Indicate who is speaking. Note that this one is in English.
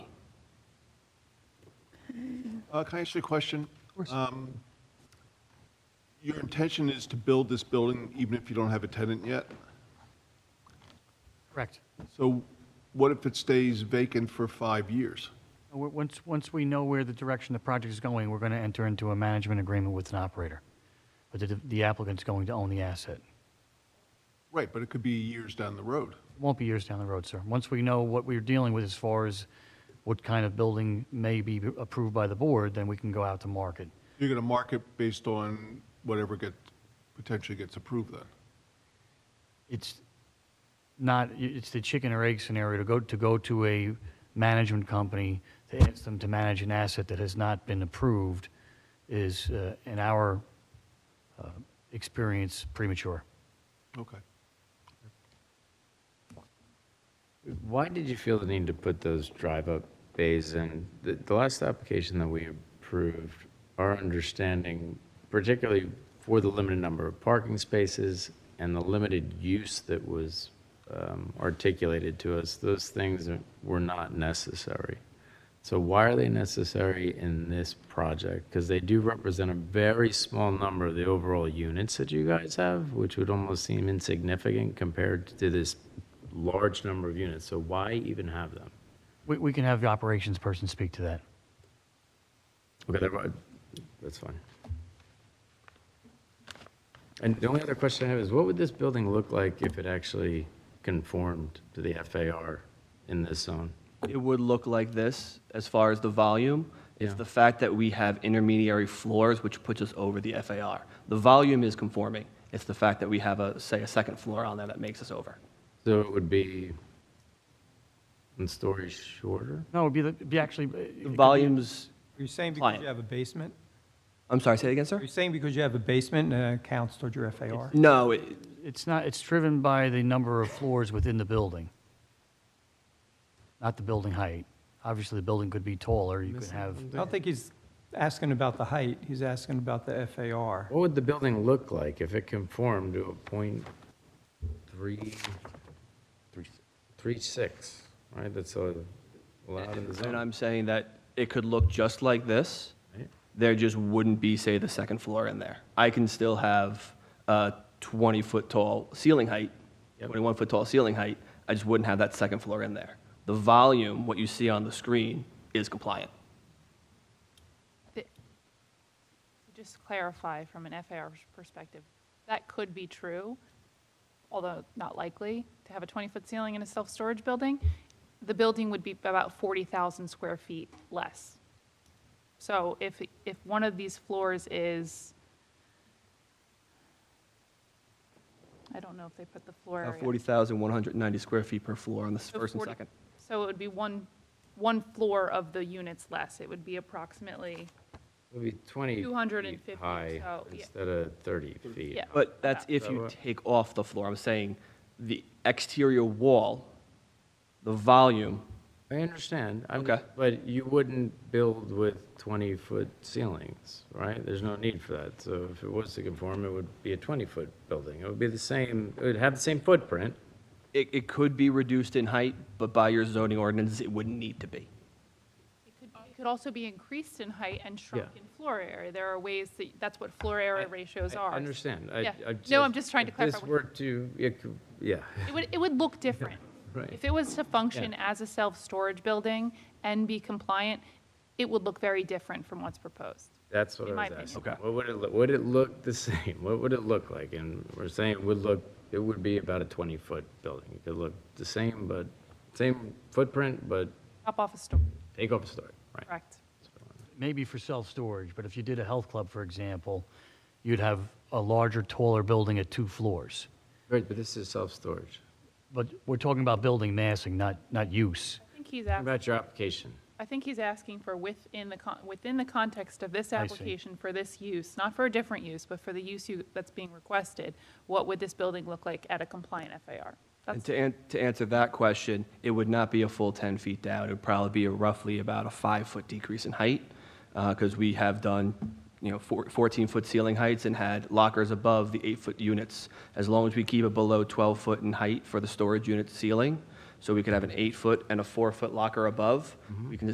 Speaker 1: Uh, Can I ask you a question? Um, Your intention is to build this building even if you don't have a tenant yet?
Speaker 2: Correct.
Speaker 1: So what if it stays vacant for five years?
Speaker 2: Uh, w- Once, once we know where the direction the project is going, we're going to enter into a management agreement with an operator. But the- the applicant's going to own the asset.
Speaker 1: Right, but it could be years down the road.
Speaker 2: Won't be years down the road, sir. Once we know what we're dealing with as far as what kind of building may be approved by the board, then we can go out to market.
Speaker 1: You're going to market based on whatever get, potentially gets approved then?
Speaker 2: It's not, i- it's the chicken or egg scenario to go, to go to a management company to ask them to manage an asset that has not been approved is, uh, in our uh, experience, premature.
Speaker 1: Okay.
Speaker 3: Why did you feel the need to put those drive-up bays in? The, the last application that we approved, our understanding, particularly for the limited number of parking spaces and the limited use that was um, articulated to us, those things were not necessary. So why are they necessary in this project? Because they do represent a very small number of the overall units that you guys have, which would almost seem insignificant compared to this large number of units. So why even have them?
Speaker 2: We, we can have the operations person speak to that.
Speaker 3: Okay, that- that's fine. And the only other question I have is, what would this building look like if it actually conformed to the FAR in this zone?
Speaker 4: It would look like this as far as the volume. It's
Speaker 3: Yeah.
Speaker 4: the fact that we have intermediary floors, which puts us over the FAR. The volume is conforming. It's the fact that we have a, say, a second floor on there that makes us over.
Speaker 3: So it would be one story shorter?
Speaker 2: No, it'd be, the- it'd be actually.
Speaker 4: The volumes,
Speaker 5: Are you saying because
Speaker 4: Client.
Speaker 5: you have a basement?
Speaker 4: I'm sorry, say it again,
Speaker 5: Are
Speaker 4: sir?
Speaker 5: you saying because you have a basement and it counts toward your FAR?
Speaker 4: No, it-
Speaker 2: It's not, it's driven by the number of floors within the building, not the building height. Obviously, the building could be taller, you could have,
Speaker 5: I don't think he's asking about the height, he's asking about the FAR.
Speaker 3: What would the building look like if it conformed to a point three, three, three six, right? That's uh, allowed in the
Speaker 4: and
Speaker 3: zone.
Speaker 4: I'm saying that it could look just like this.
Speaker 3: right?
Speaker 4: There just wouldn't be, say, the second floor in there. I can still have a 20-foot tall ceiling height,
Speaker 3: Yep.
Speaker 4: 21-foot tall ceiling height. I just wouldn't have that second floor in there. The volume, what you see on the screen, is compliant.
Speaker 6: Th- Just to clarify from an FAR perspective, that could be true, although not likely, to have a 20-foot ceiling in a self-storage building. The building would be about 40,000 square feet less. So if, if one of these floors is, I don't know if they put the floor
Speaker 4: Uh,
Speaker 6: area.
Speaker 4: 40,190 square feet per floor on the
Speaker 6: So
Speaker 4: first and
Speaker 6: 40
Speaker 4: second.
Speaker 6: So it would be one, one floor of the units less. It would be approximately
Speaker 3: It would be twenty
Speaker 6: 250
Speaker 3: feet
Speaker 6: or
Speaker 3: high
Speaker 6: so, yeah.
Speaker 3: instead of thirty feet.
Speaker 6: Yeah.
Speaker 4: But that's if you take off the floor. I'm saying the exterior wall, the volume,
Speaker 3: I understand. I'm-
Speaker 4: Okay.
Speaker 3: But you wouldn't build with twenty-foot ceilings, right? There's no need for that. So if it was to conform, it would be a twenty-foot building. It would be the same, it would have the same footprint,
Speaker 4: it, it could be reduced in height, but by your zoning ordinance, it wouldn't need to be.
Speaker 6: It could, it could also be increased in height and shrunk
Speaker 3: Yeah.
Speaker 6: in floor area. There are ways that, that's what floor area ratios
Speaker 3: I-
Speaker 6: are.
Speaker 3: I understand. I-
Speaker 6: Yeah.
Speaker 3: I
Speaker 6: No, I'm just trying to
Speaker 3: if
Speaker 6: clarify
Speaker 3: This
Speaker 6: what-
Speaker 3: were to, it could- yeah,
Speaker 6: It would, it would look different.
Speaker 3: right.
Speaker 6: If it was to function
Speaker 3: Yeah.
Speaker 6: as a self-storage building and be compliant, it would look very different from what's proposed.
Speaker 3: That's what I
Speaker 6: in
Speaker 3: was
Speaker 6: my
Speaker 3: asking.
Speaker 4: opinion. Okay.
Speaker 3: What would it, look- would it look the same? What would it look like? And we're saying it would look, it would be about a 20-foot building. It could look the same, but, same footprint, but
Speaker 6: Drop off a store,
Speaker 3: take off a story, right?
Speaker 6: correct?
Speaker 2: maybe for self-storage, but if you did a health club, for example, you'd have a larger, taller building at two floors.
Speaker 3: Right, but this is self-storage.
Speaker 2: But we're talking about building massing, not, not use.
Speaker 6: I think he's
Speaker 3: What
Speaker 6: asking,
Speaker 3: about your application?
Speaker 6: I think he's asking for within the, con- within the context of this
Speaker 2: I see.
Speaker 6: application for this use, not for a different use, but for the use you, that's being requested, what would this building look like at a compliant FAR?
Speaker 4: And
Speaker 6: That's
Speaker 4: to, an- to answer that question, it would not be a full 10 feet down. It would probably be a roughly about a five-foot decrease in height, because we have done, you know, 14-foot ceiling heights and had lockers above the eight-foot units. As long as we keep it below 12-foot in height for the storage unit ceiling, so we could have an eight-foot and a four-foot locker above, we can